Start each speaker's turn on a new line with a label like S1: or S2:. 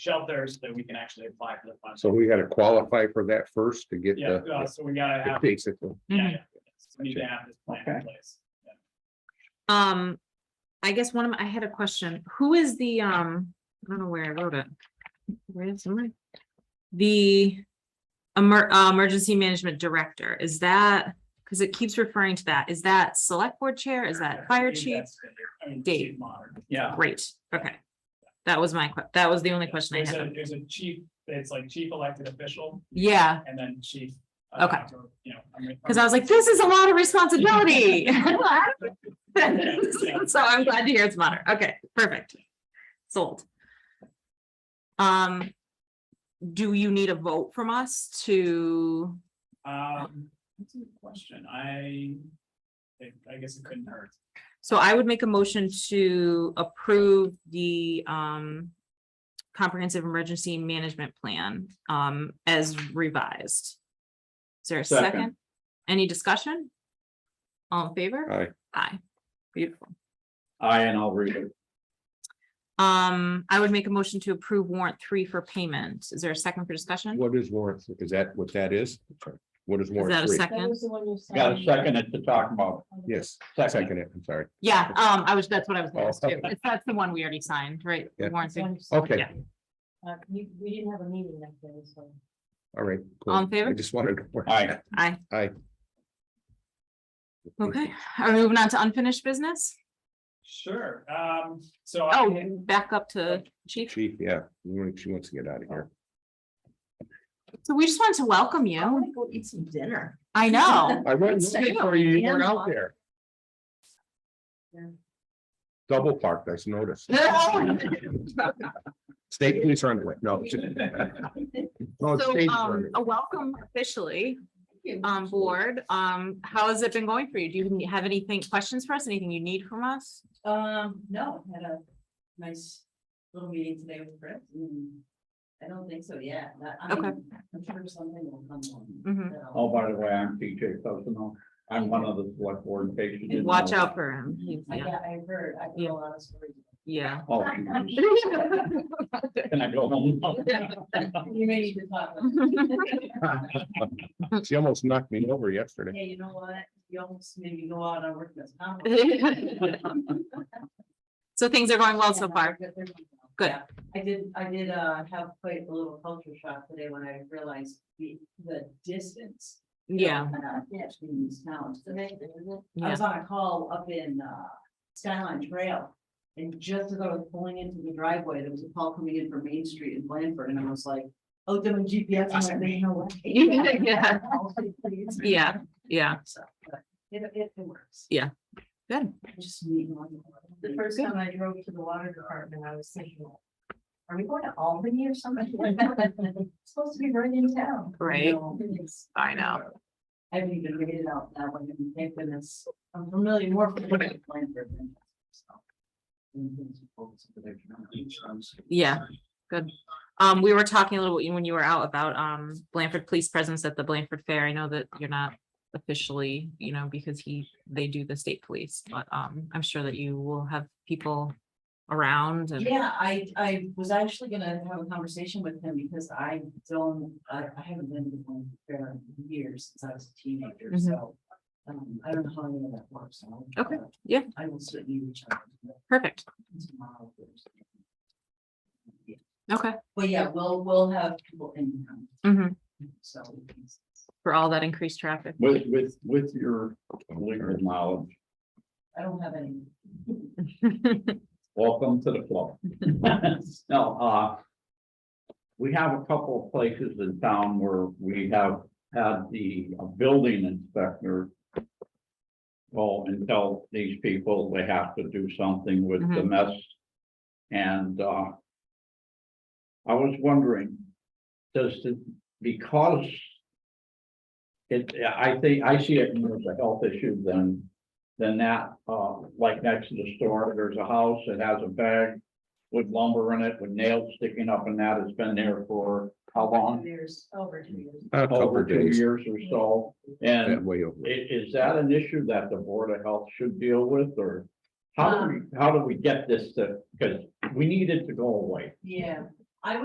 S1: shelters that we can actually apply for the funds.
S2: So we gotta qualify for that first to get
S1: Yeah, uh,
S2: the,
S1: so we gotta have, yeah,
S2: basically,
S1: yeah, we need to have this plan in
S3: Okay.
S1: place.
S4: Uh, Um, I guess one of, my- I had a question. Who is the, um, I don't know where I wrote it. Where is mine? The emer- uh, emergency management director, is that, because it keeps referring to that, is that select board chair? Is that fire chief? Dave.
S1: Dave Modern, yeah.
S4: Great, okay. That was my, que- that was the only question I
S1: There's a,
S4: had.
S1: there's a chief, it's like chief elected official
S4: Yeah,
S1: and then chief. uh,
S4: Okay.
S1: You know. I'm- I'm-
S4: because I was like, this is a lot of responsibility.
S1: Yeah, yeah.
S4: So I'm glad to hear it's modern. Okay, perfect. Sold. Um, do you need a vote from us to,
S1: Um, that's a good question. I, I- I guess it couldn't hurt.
S4: so I would make a motion to approve the, um, comprehensive emergency management plan, um, as revised. Is there a
S3: Second.
S4: second? Any discussion? All in favor?
S2: I,
S4: Aye. Beautiful.
S3: I and I'll read it.
S4: Um, I would make a motion to approve warrant three for payment. Is there a second for discussion?
S2: what is warrant, is that what that is? What is
S4: Is
S2: warrant
S4: that a
S2: three?
S5: That
S4: second?
S5: was the one you said.
S3: Got a second it to talk about.
S2: Yes,
S3: Second.
S2: second it, I'm sorry,
S4: Yeah, um, I was, that's what I was
S2: Oh,
S4: gonna ask too.
S2: okay.
S4: It's- That's the one we already signed, right? The
S2: Yeah.
S4: warrant three.
S5: One you said.
S2: okay,
S4: Yeah.
S5: Uh, you- we didn't have a meeting that day, so.
S2: all right. cool.
S4: All in favor?
S2: I just wanted. to-
S3: Aye.
S4: Aye.
S2: Aye.
S4: Okay, are we moving on to unfinished business?
S1: Sure, um, so. I-
S4: Oh, back up to chief.
S2: Chief, yeah, she wants to get out of here.
S4: Oh. So we just wanted to welcome you.
S5: to go eat some dinner.
S4: I know.
S2: I went looking for you, you weren't out there.
S5: Yeah.
S2: Double parked, I just noticed. State police are on the way, no. Oh, No, it's
S4: So,
S2: state.
S4: um, a welcome officially on board. Um, how has it been going for you? Do you have anything, questions for us? Anything you need from us?
S5: Um, no, I had a nice little meeting today with Brett. and I don't think so, yeah. not- I
S4: Okay.
S5: mean, I'm sure something will come on.
S4: Mhm.
S5: that I'll-
S3: Oh, by the way, I'm TJ Cousino. I'm one of the select board patients.
S4: Watch out for him. He's-
S5: I-
S4: yeah,
S5: Yeah, I heard, I heard
S4: Yeah.
S5: a lot of stories.
S4: Yeah.
S3: Oh, geez. Can I go home?
S5: You may need to talk. about it.
S2: She almost knocked me over yesterday.
S5: Hey, you know what? You almost made me go out on work this.
S4: So things are going well so
S5: Yeah,
S4: far.
S5: but they're doing well.
S4: Good.
S5: Yeah. I did, I did, uh, have quite a little culture shock today when I realized the, the distance.
S4: Yeah.
S5: uh, yeah, Between these towns. I
S4: Yeah.
S5: was on a call up in, uh, Skyline Trail. And just as I was pulling into the driveway, there was a call coming in from Main Street in Blandford, and I was like, oh, the GPS. I'm like, "There's no way."
S4: Yeah. Yeah, yeah.
S5: So, but It, it it works.
S4: Good.
S5: I just need one. more. The first
S4: Good.
S5: time I drove to the water department, I was thinking, are we going to Albany or something? It's Supposed to be right in town.
S4: Right.
S5: No, it's-
S4: I know.
S5: I haven't even made it out that way, and thank goodness, I'm familiar more with Blanford than. so.
S4: Yeah, good. Um, we were talking a little bit when you were out about um Blanford Police presence at the Blanford Fair. I know that you're not officially, you know, because he, they do the state police, but um, I'm sure that you will have people around and,
S5: Yeah, I, I was actually gonna have a conversation with him because I don't, I, I haven't been to one fair in years since I was a teenager,
S4: Mhm.
S5: so. Um, I don't know how any of that works. so I'll-
S4: Okay, yeah.
S5: I will certainly reach out to him
S4: perfect.
S5: tomorrow.
S4: Okay,
S5: But yeah, we'll, we'll have people in, town,
S4: mhm,
S5: so. we can-
S4: for all that increased traffic.
S3: With, with, with your legal knowledge,
S5: I don't have any.
S3: welcome to the club. No, uh. We have a couple of places in town where we have had the uh, building inspector. Go and tell these people they have to do something with the
S4: Mhm.
S3: mess. And, uh. I was wondering, does the, because. It, I think, I see it more as a health issue than, than that, uh, like next to the store, there's a house that has a bag. With lumber in it, with nails sticking up and that, it's been there for how long?
S5: There's over two years.
S2: A couple
S3: Over
S2: of
S3: two
S2: days,
S3: years or so, and
S2: yeah, way over.
S3: i- is that an issue that the Board of Health should deal with, or? How do we, how do we get this to, because we need it to go away,
S5: Yeah,